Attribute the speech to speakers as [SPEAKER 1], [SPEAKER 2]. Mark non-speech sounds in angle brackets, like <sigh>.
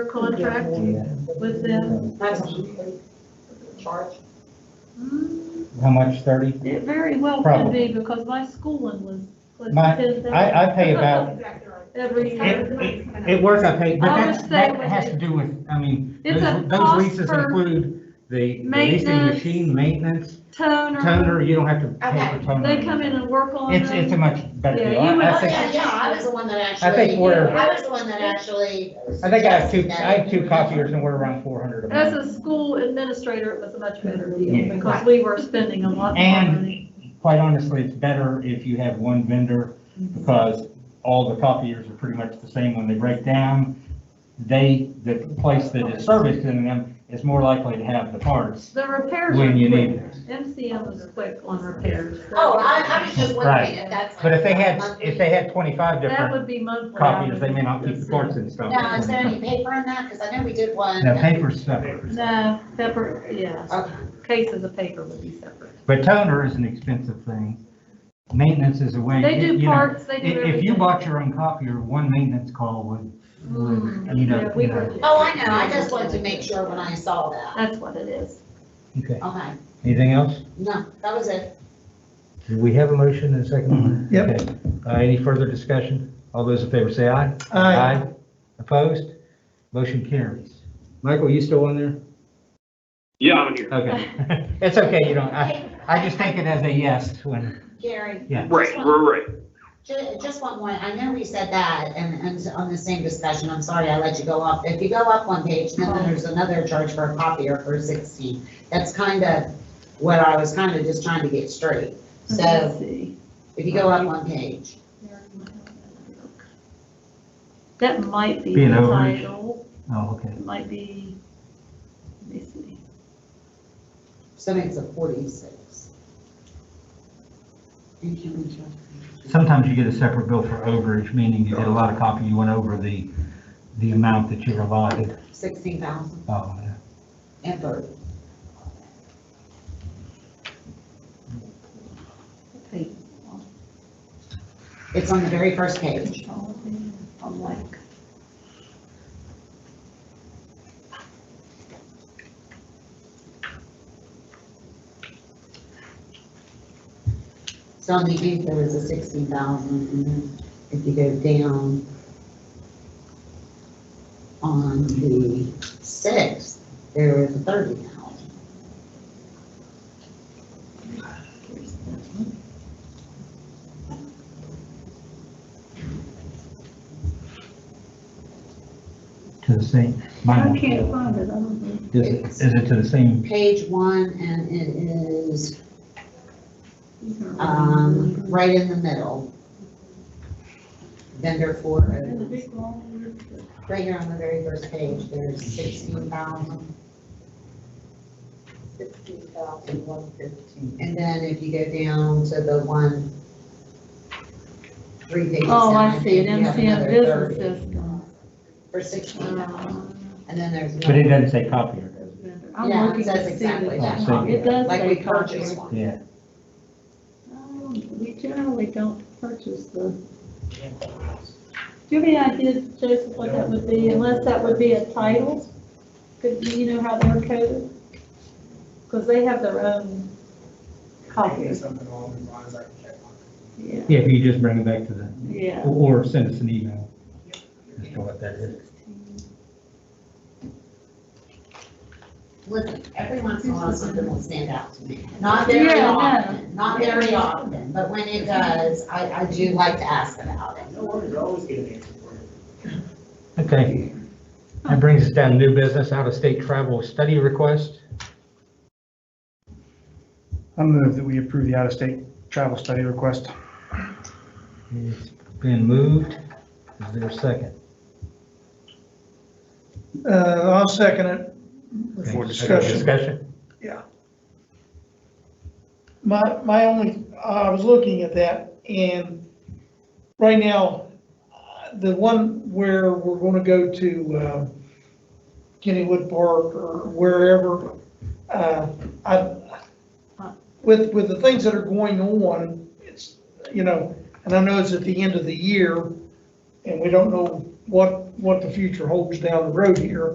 [SPEAKER 1] contract with them?
[SPEAKER 2] That's a charge.
[SPEAKER 1] Hmm,
[SPEAKER 3] How much, thirty?
[SPEAKER 1] It very well could be, because my schooling was close
[SPEAKER 3] My-
[SPEAKER 1] to ten
[SPEAKER 3] I, I
[SPEAKER 1] thousand
[SPEAKER 3] pay about,
[SPEAKER 2] Exactly right.
[SPEAKER 1] <laughs> every year.
[SPEAKER 3] it works, I pay, but
[SPEAKER 1] I would
[SPEAKER 3] that,
[SPEAKER 1] say
[SPEAKER 3] that
[SPEAKER 1] when
[SPEAKER 3] has
[SPEAKER 1] it-
[SPEAKER 3] to do with, I mean,
[SPEAKER 1] It's a
[SPEAKER 3] those
[SPEAKER 1] cost
[SPEAKER 3] those leases
[SPEAKER 1] per
[SPEAKER 3] include the the leasing
[SPEAKER 1] maintenance,
[SPEAKER 3] machine, maintenance,
[SPEAKER 1] Toner,
[SPEAKER 3] toner, you don't have to pay
[SPEAKER 2] Okay.
[SPEAKER 3] for toner.
[SPEAKER 1] they come in and work on
[SPEAKER 3] It's, it's a
[SPEAKER 1] them.
[SPEAKER 3] much better
[SPEAKER 1] Yeah,
[SPEAKER 3] deal.
[SPEAKER 1] you would-
[SPEAKER 3] I- I
[SPEAKER 4] Oh,
[SPEAKER 3] think-
[SPEAKER 4] yeah, yeah, I was the one that
[SPEAKER 3] I
[SPEAKER 4] actually,
[SPEAKER 3] think we're,
[SPEAKER 4] I was the one that actually.
[SPEAKER 3] I think I have two,
[SPEAKER 4] suggested that.
[SPEAKER 3] I have two copiers and we're around four hundred a
[SPEAKER 1] As
[SPEAKER 3] month.
[SPEAKER 1] a school administrator, it was a much better deal,
[SPEAKER 3] Yeah.
[SPEAKER 1] because we were spending a lot more
[SPEAKER 3] And-
[SPEAKER 1] money.
[SPEAKER 3] Quite honestly, it's better if you have one vendor because all the copiers are pretty much the same when they break down. They, the place that is servicing them is more likely to have the parts
[SPEAKER 1] The repairs were
[SPEAKER 3] when you need
[SPEAKER 1] quick.
[SPEAKER 3] them.
[SPEAKER 1] MCM was quick on repairs.
[SPEAKER 4] Oh, I, I was just
[SPEAKER 3] Right.
[SPEAKER 4] wondering if that's. like
[SPEAKER 3] But if they had,
[SPEAKER 4] monthly-
[SPEAKER 3] if they had twenty-five
[SPEAKER 1] That
[SPEAKER 3] different
[SPEAKER 1] would be monthly.
[SPEAKER 3] copiers, they may not keep the parts and stuff.
[SPEAKER 4] Now, is there any paper on that? Because I know we did one.
[SPEAKER 3] No, paper's separate,
[SPEAKER 1] No, separate, yeah,
[SPEAKER 4] Okay.
[SPEAKER 1] cases of paper would be separate.
[SPEAKER 3] but toner is an expensive thing. Maintenance is a way.
[SPEAKER 1] They
[SPEAKER 3] you
[SPEAKER 1] do
[SPEAKER 3] know,
[SPEAKER 1] parts, they
[SPEAKER 3] i-
[SPEAKER 1] do
[SPEAKER 3] If,
[SPEAKER 1] everything.
[SPEAKER 3] you bought your own copier, one maintenance call would, would, you know,
[SPEAKER 1] Yeah, we
[SPEAKER 3] you know.
[SPEAKER 1] were-
[SPEAKER 4] Oh, I know, I just wanted to make sure when I saw that.
[SPEAKER 1] That's what it is.
[SPEAKER 3] Okay,
[SPEAKER 4] Okay,
[SPEAKER 3] anything else?
[SPEAKER 4] no, that was it.
[SPEAKER 3] Do we have a motion and a second?
[SPEAKER 5] Yep.
[SPEAKER 3] Okay. Uh, any further discussion? All those in favor say aye.
[SPEAKER 5] Aye.
[SPEAKER 3] Opposed? Motion carries. Michael, you still on there?
[SPEAKER 6] Yeah, I'm here.
[SPEAKER 3] Okay. It's okay, you don't, I, I just take it as a yes when,
[SPEAKER 4] Gary,
[SPEAKER 6] Right, right, right.
[SPEAKER 4] ju- just one more, I know we said that, and, and on the same discussion, I'm sorry I let you go off. If you go up one page, then there's another charge for a copier for sixteen. That's kind of what I was kind of just trying to get straight. So
[SPEAKER 1] Let's see.
[SPEAKER 4] if you go up one page.
[SPEAKER 1] That might be
[SPEAKER 3] Be
[SPEAKER 1] the
[SPEAKER 3] an overage.
[SPEAKER 1] title,
[SPEAKER 3] oh, okay.
[SPEAKER 1] it might be, let me see.
[SPEAKER 4] So it's a forty-six. And can we check?
[SPEAKER 3] Sometimes you get a separate bill for overage, meaning you did a lot of copy, you went over the, the amount that you're allotted.
[SPEAKER 4] Sixteen thousand
[SPEAKER 3] Oh, yeah.
[SPEAKER 4] and thirty.
[SPEAKER 1] Okay.
[SPEAKER 4] It's on the very first page.
[SPEAKER 1] I'm like,
[SPEAKER 4] So on the end, there was a sixteen thousand, and then if you go down on the sixth, there was a thirty thousand.
[SPEAKER 1] here's that one.
[SPEAKER 3] to the same.
[SPEAKER 1] I
[SPEAKER 3] mine-
[SPEAKER 1] can't find it, I don't know.
[SPEAKER 3] Is it, is it to the same?
[SPEAKER 4] Page one, and it is,
[SPEAKER 1] These are all-
[SPEAKER 4] um, right in the middle. Vendor oh. for,
[SPEAKER 1] There's a big long word.
[SPEAKER 4] right here on the very first page, there's sixteen thousand. Sixteen thousand one fifteen. And then if you go down to the one, three pages.
[SPEAKER 1] Oh,
[SPEAKER 4] down,
[SPEAKER 1] I see it,
[SPEAKER 4] think you have
[SPEAKER 1] MCM
[SPEAKER 4] another
[SPEAKER 1] business
[SPEAKER 4] 30
[SPEAKER 1] system.
[SPEAKER 4] For sixteen thousand,
[SPEAKER 1] Um,
[SPEAKER 4] and then there's.
[SPEAKER 3] But it doesn't say copier, does it?
[SPEAKER 1] I'm
[SPEAKER 4] Yeah, it
[SPEAKER 1] looking
[SPEAKER 4] says
[SPEAKER 1] to see
[SPEAKER 4] exactly
[SPEAKER 1] that.
[SPEAKER 3] that.
[SPEAKER 1] It does
[SPEAKER 4] Like we
[SPEAKER 1] say copier.
[SPEAKER 4] purchased one.
[SPEAKER 3] Yeah.
[SPEAKER 1] Um, We generally don't purchase the. Do you have any idea, Joseph, what that would be, unless that would be a title? Could, do you know how they're coded? Because they have their own copies,
[SPEAKER 5] Something along those lines, I can check on.
[SPEAKER 1] yeah,
[SPEAKER 3] Yeah, if you just bring it back to the,
[SPEAKER 1] yeah.
[SPEAKER 3] or or send us an email as to what that is.
[SPEAKER 4] Listen, every once in a while, something will stand out to me. Not very
[SPEAKER 1] Yeah, I know.
[SPEAKER 4] often, not very often, but when it does, I, I do like to ask about it.
[SPEAKER 5] No worries, I always get an answer for you.
[SPEAKER 3] Okay. That brings us down to new business, out-of-state travel study request.
[SPEAKER 7] I move that we approve the out-of-state travel study request.
[SPEAKER 3] It's been moved. Is there a second?
[SPEAKER 5] Uh, I'll second it.
[SPEAKER 3] Okay,
[SPEAKER 7] For
[SPEAKER 5] discussion.
[SPEAKER 3] Discussion?
[SPEAKER 5] My, my only, uh, I was looking at that and right now, uh, the one where we're gonna go to, uh, Kennywood Park or wherever, uh, I, with, with the things that are going on, it's, you know, and I know it's at the end of the year and we don't know what what the future holds down the road here.